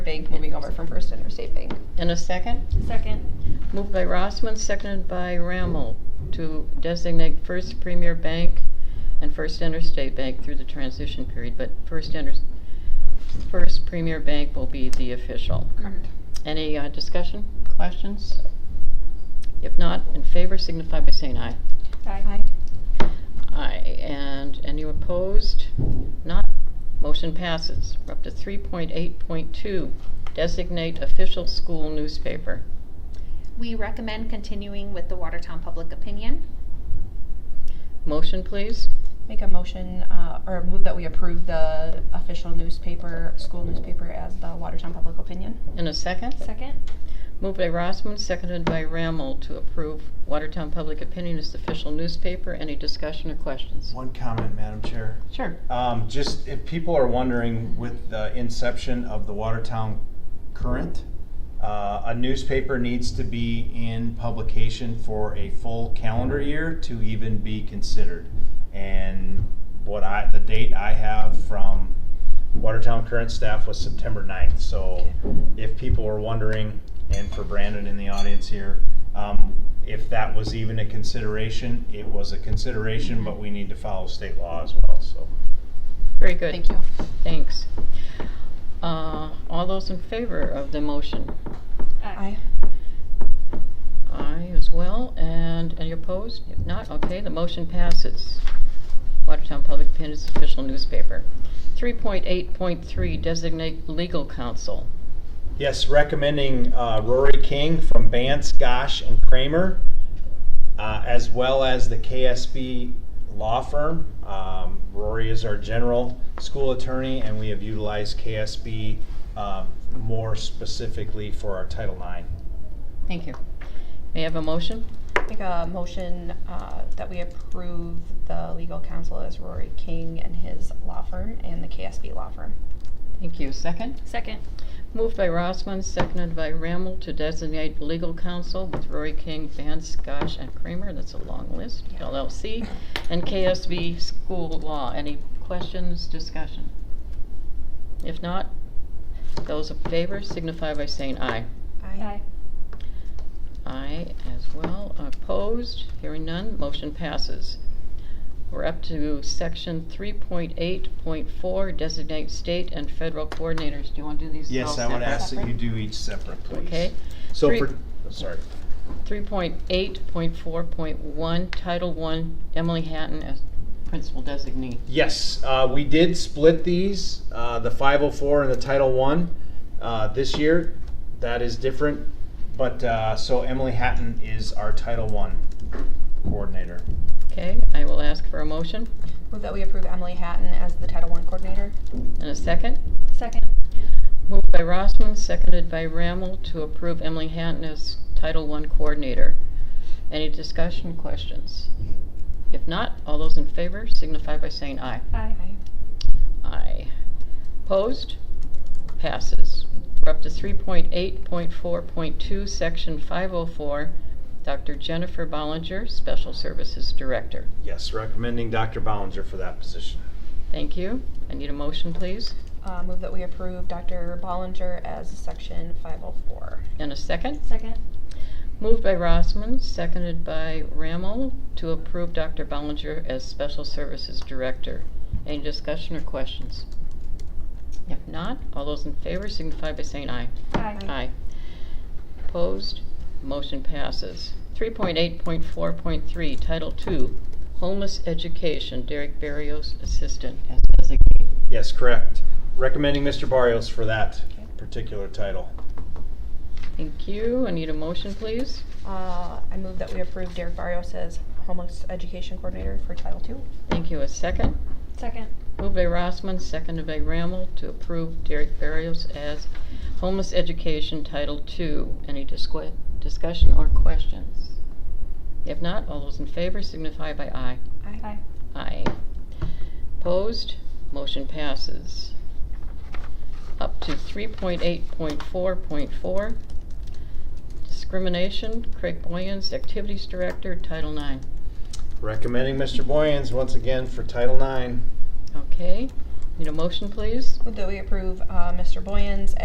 Bank moving over from First Interstate Bank. And a second? Second. Moved by Rossman, seconded by Rammel to designate First Premier Bank and First Interstate Bank through the transition period, but First Inter, First Premier Bank will be the official. Correct. Any uh, discussion, questions? If not, in favor signify by saying aye. Aye. Aye, and any opposed? Not, motion passes. We're up to three point eight point two, designate official school newspaper. We recommend continuing with the Watertown Public Opinion. Motion, please. Make a motion, uh, or move that we approve the official newspaper, school newspaper as the Watertown Public Opinion. In a second? Second. Moved by Rossman, seconded by Rammel to approve Watertown Public Opinion as the official newspaper. Any discussion or questions? One comment, Madam Chair. Sure. Um, just if people are wondering, with the inception of the Watertown Current, uh, a newspaper needs to be in publication for a full calendar year to even be considered. And what I, the date I have from Watertown Current staff was September 9th. So if people were wondering, and for Brandon in the audience here, um, if that was even a consideration, it was a consideration, but we need to follow state law as well, so. Very good. Thank you. Thanks. Uh, All those in favor of the motion? Aye. Aye as well. And any opposed? If not, okay, the motion passes. Watertown Public Opinion is the official newspaper. 3.8.3 Designate Legal Counsel. Yes, recommending uh, Rory King from Bance, Gosh, and Kramer, uh, as well as the KSB Law Firm. Um, Rory is our general school attorney, and we have utilized KSB uh, more specifically for our Title IX. Thank you. May I have a motion? Make a motion, uh, that we approve the legal counsel as Rory King and his law firm and the KSB law firm. Thank you. Second? Second. Moved by Rossman, seconded by Rammel to designate legal counsel with Rory King, Vance, Gosh, and Kramer, that's a long list, Yeah. LLC, and KSB School Law. Any questions, discussion? If not, those in favor signify by saying aye. Aye. Aye as well. Opposed? Hearing none, motion passes. We're up to section three point eight point four, designate state and federal coordinators. Do you want to do these all Yes, I would separate? ask that you do each separate, please. Okay. So Three- for, sorry. 3.8.4.1, Title I, Emily Hatton as principal designee. Yes, uh, we did split these, uh, the 504 and the Title One, uh, this year. That is different, but uh, so Emily Hatton is our Title One coordinator. Okay, I will ask for a motion Move that we approve Emily Hatton as the Title I coordinator. and a second. Second. Moved by Rossman, seconded by Rammel to approve Emily Hatton as Title I coordinator. Any discussion, questions? If not, all those in favor signify by saying aye. Aye. Aye. Opposed? Passes. We're up to three point eight point four point two, section five oh four. Dr. Jennifer Bollinger, Special Services Director. Yes, recommending Dr. Ballinger for that position. Thank you. I need a motion, please, Uh, move that we approve Dr. Bollinger as Section 504. and a second. Second. Moved by Rossman, seconded by Rammel to approve Dr. Bollinger as Special Services Director. Any discussion or questions? If not, all those in favor signify by saying aye. Aye. Aye. Opposed? Motion passes. 3.8.4.3, Title II, Homeless Education, Derek Barrios, Assistant as designee. Yes, correct. Recommending Mr. Barrios for that particular title. Thank you. I need a motion, please. Uh, I move that we approve Derek Barrios as homeless education coordinator for Title II. Thank you. A second. Second. Moved by Rossman, seconded by Rammel to approve Derek Barrios as Homeless Education, Title II. Any disqu- discussion or questions? If not, all those in favor signify by aye. Aye. Aye. Opposed? Motion passes. Up to 3.8.4.4, discrimination, Craig Boyens, Activities Director, Title IX. Recommending Mr. Boyens once again for Title IX. Okay, need a motion, please? Move that we approve uh, Mr. Boyens